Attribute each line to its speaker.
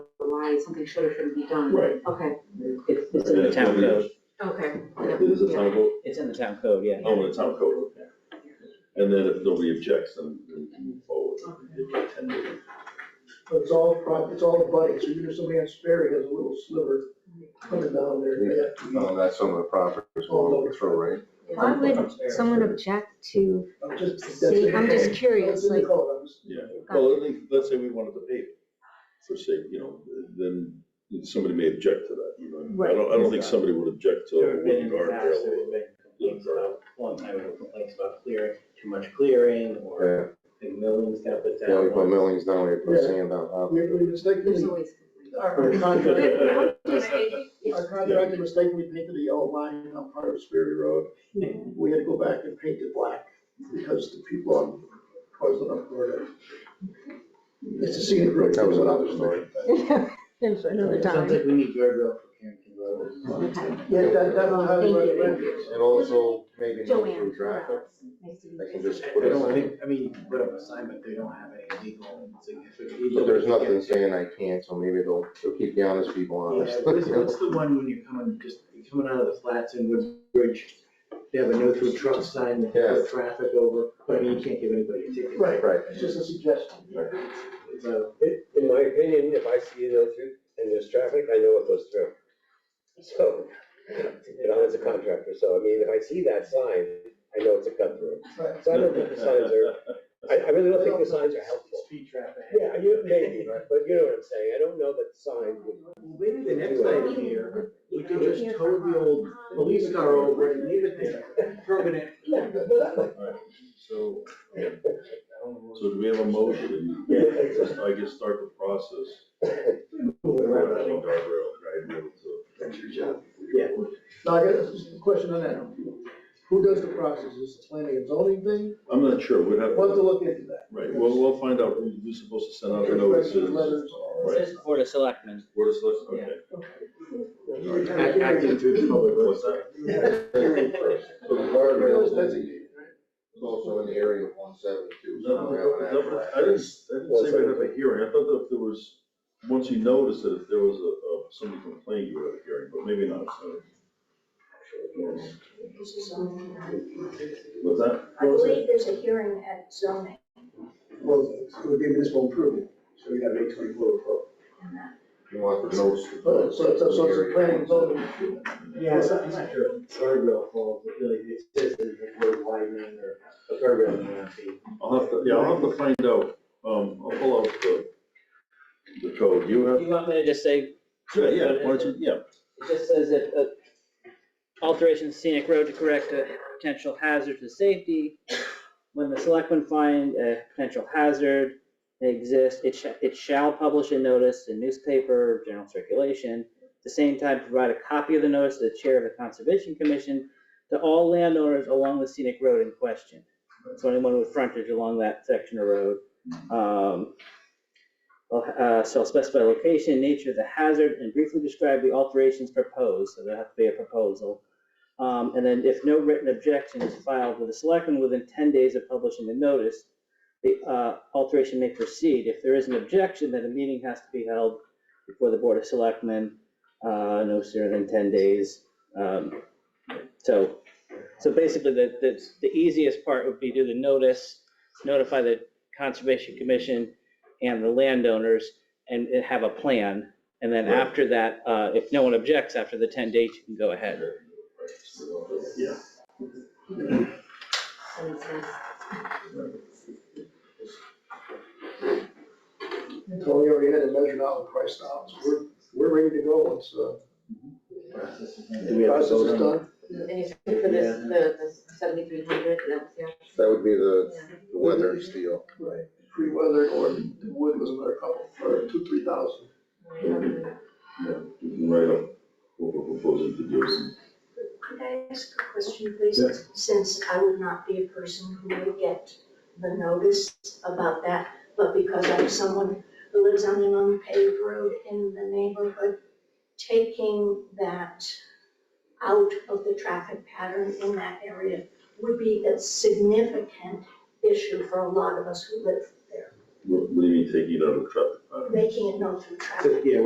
Speaker 1: why something should or shouldn't be done.
Speaker 2: Right.
Speaker 1: Okay,
Speaker 2: It's,
Speaker 3: it's in the town code.
Speaker 1: okay,
Speaker 2: It is a town code,
Speaker 3: It's in the town code, yeah.
Speaker 2: oh, in the town code, okay. And then if nobody objects, then we can move forward, Give it ten days.
Speaker 4: But it's all, pri- it's all abutting, so even if somebody on Sperry has a little sliver coming down there, they have to,
Speaker 5: No, that's some of the properties will overthrow, right?
Speaker 6: Why would someone object to,
Speaker 4: I'm just. that's
Speaker 6: See,
Speaker 4: it.
Speaker 6: I'm just curious,
Speaker 4: That's in the
Speaker 6: like-
Speaker 4: code, I'm just-
Speaker 2: yeah, well, I think, let's say we wanted to pave it, for say, you know, then somebody may object to that, you know. I don't, I don't think somebody would object to
Speaker 3: There
Speaker 2: a
Speaker 3: have been
Speaker 2: wooden
Speaker 3: in the past, there
Speaker 2: guardrail.
Speaker 3: have been complaints about, one time there were complaints about clearing, too much clearing, or
Speaker 5: Yeah,
Speaker 3: big millings got put
Speaker 5: yeah, we put
Speaker 3: down.
Speaker 5: millings down, we put
Speaker 4: Yeah.
Speaker 5: sand down, uh,
Speaker 4: We, we
Speaker 1: there's
Speaker 4: mistakenly,
Speaker 1: always.
Speaker 4: our contractor,
Speaker 1: It's-
Speaker 4: our contractor mistakenly painted the yellow line on part of Sperry Road. We had to go back and paint it black because the people on Pleasant Hill were. It's a scenic road.
Speaker 5: that was another story.
Speaker 6: in front of the
Speaker 7: Sounds
Speaker 6: time?
Speaker 7: like we need guardrail for Carrington Road.
Speaker 4: Yeah, that, that was how
Speaker 6: Thank
Speaker 4: it
Speaker 6: you.
Speaker 4: was.
Speaker 5: And also maybe no
Speaker 6: Joanne.
Speaker 5: through traffic, they can just
Speaker 7: I
Speaker 5: put a
Speaker 7: don't
Speaker 5: sign,
Speaker 7: think, I mean, put up a sign, but they don't have any legal significance.
Speaker 5: but there's nothing saying I can't, so maybe they'll, they'll keep the honest people honest.
Speaker 7: Yeah, what's, what's the one when you're coming, just, you're coming out of the flats in Woodbridge, they have a no through truck sign that
Speaker 5: Yes.
Speaker 7: put traffic over, but I mean, you can't give anybody a ticket.
Speaker 4: Right,
Speaker 5: Right.
Speaker 4: it's just a suggestion.
Speaker 7: It's a-
Speaker 8: In- In my opinion, if I see those through, and there's traffic, I know it goes through. So, you know, as a contractor, so I mean, if I see that sign, I know it's a cut through.
Speaker 4: Right.
Speaker 8: So I don't think the signs are, I, I really don't think the signs are helpful.
Speaker 7: Speed traffic.
Speaker 8: Yeah, you, maybe, but you know what I'm saying, I don't know that sign would.
Speaker 7: Well, Maybe the next item here, we could just tow the old police car over and leave it there, permanent.
Speaker 2: So,
Speaker 7: I don't know.
Speaker 2: so do we have a motion?
Speaker 8: Yeah.
Speaker 2: I guess start the process.
Speaker 7: Around that.
Speaker 2: Guardrail, guardrail, so.
Speaker 4: That's your job.
Speaker 7: Yeah.
Speaker 4: Now, I got a question on that. Who does the process? Is it planning and zoning thing?
Speaker 2: I'm not sure, we'd have,
Speaker 4: We'll have to
Speaker 2: to-
Speaker 4: look into that.
Speaker 2: right, we'll, we'll find out who you're supposed to send out the notices.
Speaker 4: Letters.
Speaker 2: Right,
Speaker 3: Board of Selectmen.
Speaker 2: Board of Selectmen, okay.
Speaker 7: Act- Acting through the public
Speaker 2: What's
Speaker 7: works.
Speaker 2: that?
Speaker 5: So the guardrail is designated, right? It's also in the area of one seventy-two. so we have
Speaker 2: No,
Speaker 5: an
Speaker 2: no, I
Speaker 5: actual-
Speaker 2: didn't, I didn't say we'd have a hearing, I thought that if there was, once you notice that if there was a, a, somebody complained, you would have a hearing, but maybe not, so. What's that?
Speaker 9: I believe there's a hearing at zoning
Speaker 4: Well, it would be municipal improvement, so we have eight twenty-four.
Speaker 9: and that.
Speaker 5: You want the notes.
Speaker 4: So,
Speaker 8: Oh,
Speaker 4: so, so it's a planning and zoning.
Speaker 7: Yeah, it's not, it's not sure. Guardrail falls, but really, it says there's a road widening or a guardrail may not be.
Speaker 2: I'll have to, yeah, I'll have to find out, um, I'll pull out the, the code, you have,
Speaker 3: You want me to just say,
Speaker 2: yeah, yeah, why don't you, yeah,
Speaker 3: it just says that, uh, alterations scenic road to correct a potential hazard to safety. When the selectmen find a potential hazard exists, it shall, it shall publish a notice in newspaper, general circulation. At the same time, provide a copy of the notice to the chair of the conservation commission to all landowners along the scenic road in question. So anyone with frontage along that section of road. Um, well, uh, shall specify location, nature of the hazard, and briefly describe the alterations proposed, so there have to be a proposal. Um, and then if no written objection is filed with the selectmen within ten days of publishing the notice, the, uh, alteration may proceed. If there is an objection, then a meeting has to be held before the board of selectmen, uh, no sooner than ten days. Um, so, so basically, the, the, the easiest part would be do the notice, notify the conservation commission, and the landowners and and have a plan. And then
Speaker 2: Right.
Speaker 3: after that, uh, if no one objects after the ten days, you can go ahead.
Speaker 2: yeah.
Speaker 1: that makes sense.
Speaker 4: Tony already had it measured out and priced out, so we're, we're ready to go once, uh,
Speaker 7: Do
Speaker 4: the process is done.
Speaker 1: And you said for this, the, the seventy-three hundred, that was, yeah,
Speaker 5: That would be the
Speaker 1: yeah.
Speaker 5: the weather steel.
Speaker 4: Right. Free weather or the wood was another couple, or two, three thousand.
Speaker 2: Yeah, you can write up what we're proposing to do, and
Speaker 9: Could I ask a question, please?
Speaker 2: Yeah.
Speaker 9: Since I would not be a person who would get the notice about that, but because I'm someone who lives on an unpaved road in the neighborhood, taking that out of the traffic pattern in that area would be a significant issue for a lot of us who live there,
Speaker 2: what, what do you mean taking it out of traffic? pattern?
Speaker 9: making it known through traffic.
Speaker 7: Yeah,